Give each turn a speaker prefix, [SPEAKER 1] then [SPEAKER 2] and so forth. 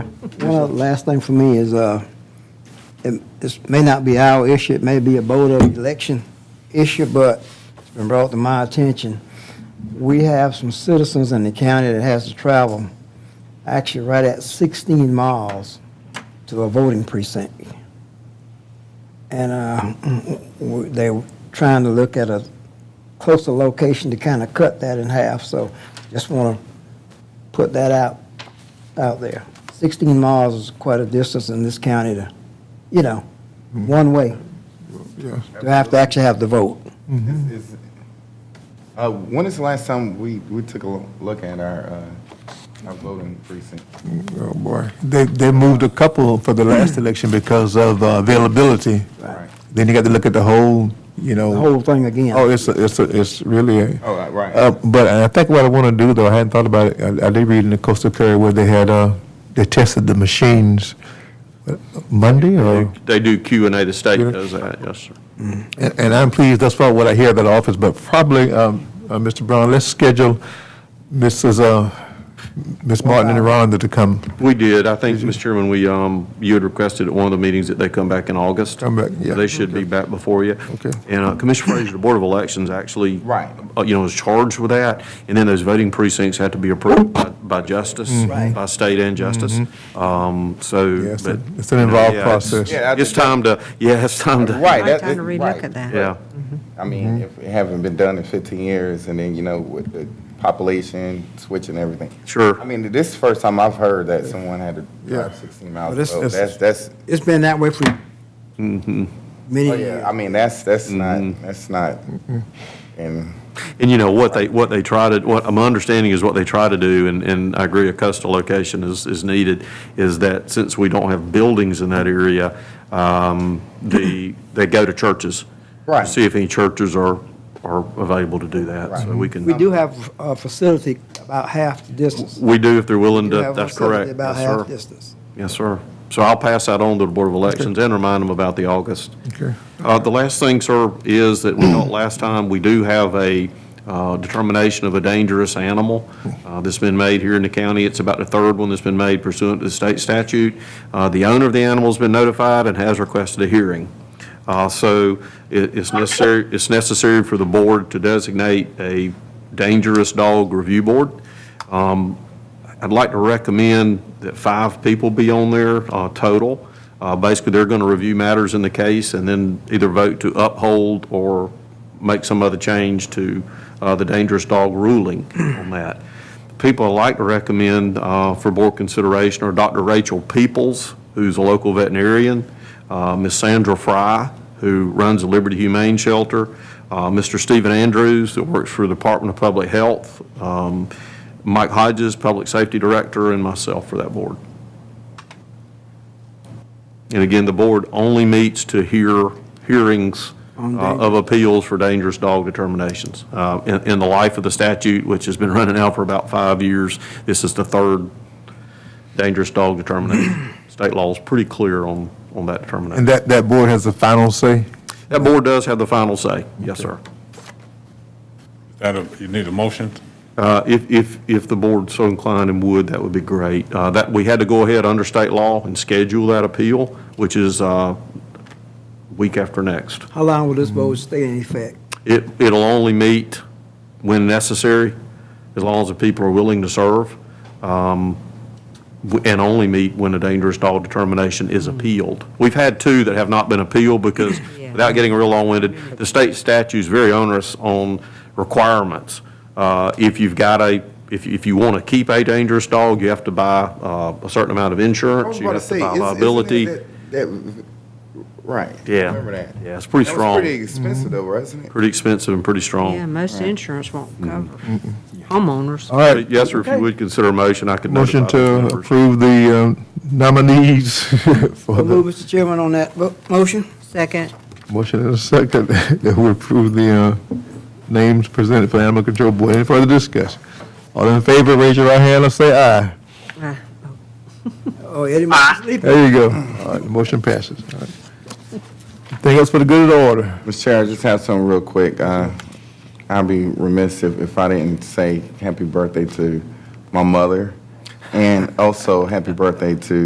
[SPEAKER 1] One other last thing for me is, uh, it- this may not be our issue, it may be a Board of Election issue, but it's been brought to my attention. We have some citizens in the county that has to travel, actually right at 16 miles to a voting precinct. And uh, w- they're trying to look at a closer location to kind of cut that in half, so just want to put that out, out there. 16 miles is quite a distance in this county to, you know,
[SPEAKER 2] Mm-hmm.
[SPEAKER 1] one way,
[SPEAKER 3] Yes.
[SPEAKER 1] to have to actually have the vote.
[SPEAKER 4] Is- is- uh, When is the last time we, we took a lo- look at our, uh, our voting precinct?
[SPEAKER 3] Oh, boy. They, they moved a couple for the last election because of uh, availability.
[SPEAKER 4] Right.
[SPEAKER 3] Then you got to look at the whole, you know.
[SPEAKER 1] The whole thing again.
[SPEAKER 3] Oh, it's, a- it's, a- it's really. a-
[SPEAKER 4] Oh, right, right.
[SPEAKER 3] Uh, But I think what I want to do, though, I hadn't thought about it, I I did read in the Coastal Courier where they had, uh, they tested the machines uh, Monday or?
[SPEAKER 2] They do Q and A, the state
[SPEAKER 3] Yeah.
[SPEAKER 2] does that, yes, sir.
[SPEAKER 3] And and I'm pleased, that's far what I hear at that office, but probably, um, uh, Mr. Brown, let's schedule Mrs., uh, Ms. Martin and Rhonda to come,
[SPEAKER 2] We did, I think, Mr. Chairman, we, um, you had requested at one of the meetings that they come back in August.
[SPEAKER 3] Come back, yeah.
[SPEAKER 2] They should be back before you.
[SPEAKER 3] Okay.
[SPEAKER 2] And uh, Commissioner Frazier, the Board of Elections actually.
[SPEAKER 4] Right.
[SPEAKER 2] uh, You know, is charged with that, and then those voting precincts have to be approved by, by justice,
[SPEAKER 4] Mm-hmm.
[SPEAKER 1] Right.
[SPEAKER 2] by state and justice. Um, so.
[SPEAKER 3] Mm-hmm. Yes,
[SPEAKER 2] but,
[SPEAKER 3] it's an
[SPEAKER 2] you know,
[SPEAKER 3] involved
[SPEAKER 2] yeah, it's-
[SPEAKER 3] process.
[SPEAKER 4] Yeah, I
[SPEAKER 2] It's
[SPEAKER 4] think
[SPEAKER 2] time to, yeah, it's time to.
[SPEAKER 4] Right.
[SPEAKER 5] Might
[SPEAKER 4] that-
[SPEAKER 5] time to
[SPEAKER 4] it-
[SPEAKER 5] relook
[SPEAKER 4] right.
[SPEAKER 5] at that.
[SPEAKER 2] Yeah,
[SPEAKER 4] I
[SPEAKER 2] Mm-hmm.
[SPEAKER 4] mean, if it haven't been done in 15 years, and then, you know, with the population switching everything.
[SPEAKER 2] Sure.
[SPEAKER 4] I mean, this is the first time I've heard that someone had to drive
[SPEAKER 3] Yeah.
[SPEAKER 4] 16 miles.
[SPEAKER 1] But it's-
[SPEAKER 4] to vote.
[SPEAKER 3] it's-
[SPEAKER 4] That's, that's,
[SPEAKER 1] It's been that way for
[SPEAKER 2] Mm-hmm.
[SPEAKER 1] many
[SPEAKER 4] oh,
[SPEAKER 1] years.
[SPEAKER 4] yeah, I mean, that's, that's not, that's not,
[SPEAKER 2] Mm-hmm.
[SPEAKER 4] and.
[SPEAKER 2] and you know, what they, what they try to, what, my understanding is what they try to do, and, and I agree, a coastal location is, is needed, is that since we don't have buildings in that area, um, the, they go to churches.
[SPEAKER 4] Right.
[SPEAKER 2] To see if any churches are, are available to do that, so we can.
[SPEAKER 1] We do have a facility about half the distance.
[SPEAKER 2] We do, if they're willing
[SPEAKER 1] We
[SPEAKER 2] to,
[SPEAKER 1] have a
[SPEAKER 2] that's
[SPEAKER 1] facility
[SPEAKER 2] correct.
[SPEAKER 1] About
[SPEAKER 2] Yes, sir.
[SPEAKER 1] half distance.
[SPEAKER 2] Yes, sir. So I'll pass that on to the Board of Elections and remind them about the August.
[SPEAKER 3] Okay.
[SPEAKER 2] Uh, The last thing, sir, is that we thought last time, we do have a uh, determination of a dangerous animal uh, that's been made here in the county. It's about the third one that's been made pursuant to the state statute. Uh, The owner of the animal's been notified and has requested a hearing. Uh, So it- it's necessary, it's necessary for the board to designate a dangerous dog review board. I'd like to recommend that five people be on there uh, total. Uh, Basically, they're going to review matters in the case and then either vote to uphold or make some other change to uh, the dangerous dog ruling on that. People I'd like to recommend uh, for board consideration are Dr. Rachel Peoples, who's a local veterinarian, uh, Ms. Sandra Fry, who runs the Liberty Humane Shelter, uh, Mr. Stephen Andrews, that works for the Department of Public Health, um, Mike Hodges, Public Safety Director, and myself for that board. And again, the board only meets to hear hearings uh, of appeals for dangerous dog determinations. Uh, In in the life of the statute, which has been running now for about five years, this is the third dangerous dog determination. State law is pretty clear on, on that
[SPEAKER 3] and
[SPEAKER 2] determination.
[SPEAKER 3] that, that board has the final say?
[SPEAKER 2] That board does have the final say, yes, sir.
[SPEAKER 6] That, you need a motion?
[SPEAKER 2] Uh, If, if, if the board so inclined and would, that would be great. Uh, That, we had to go ahead under state law and schedule that appeal, which is uh, week after next.
[SPEAKER 1] How long will this
[SPEAKER 2] Mm-hmm.
[SPEAKER 1] vote stay in effect?
[SPEAKER 2] It, it'll only meet when necessary, as long as the people are willing to serve, um, w- and only meet when a dangerous dog determination is appealed. We've had two that have not been appealed because,
[SPEAKER 5] Mm-hmm. Yeah.
[SPEAKER 2] without getting real long-winded, the state statute's very onerous on requirements. Uh, If you've got a, if, if you want to keep a dangerous dog, you have to buy uh, a certain amount of insurance, you have to buy liability.
[SPEAKER 4] Right.
[SPEAKER 2] Yeah.
[SPEAKER 4] Remember that.
[SPEAKER 2] Yeah, it's pretty
[SPEAKER 4] That was
[SPEAKER 2] strong. Mm-hmm.
[SPEAKER 4] pretty expensive though, wasn't it?
[SPEAKER 2] Pretty expensive and pretty strong.
[SPEAKER 5] Yeah, most insurance won't cover homeowners.
[SPEAKER 2] Uh,
[SPEAKER 3] All right,
[SPEAKER 2] Yes, sir, if you would consider a motion, I could notify
[SPEAKER 3] motion to
[SPEAKER 2] the members.
[SPEAKER 3] approve the um, nominees for
[SPEAKER 1] We'll move,
[SPEAKER 3] the,
[SPEAKER 1] Mr. Chairman, on that vo- motion?
[SPEAKER 5] Second,
[SPEAKER 3] motion and a second, that we approve the uh, names presented for Animal Control Board. Any further discussion? All in favor, raise your right hand and say aye.
[SPEAKER 5] uh,
[SPEAKER 1] Oh, Eddie might be sleeping.
[SPEAKER 3] There you go. All right, the motion passes. All right. Anything else for the good of the order?
[SPEAKER 4] Mr. Chair, I just have something real quick. Uh, I'd be remiss if, if I didn't say happy birthday to my mother and also happy birthday to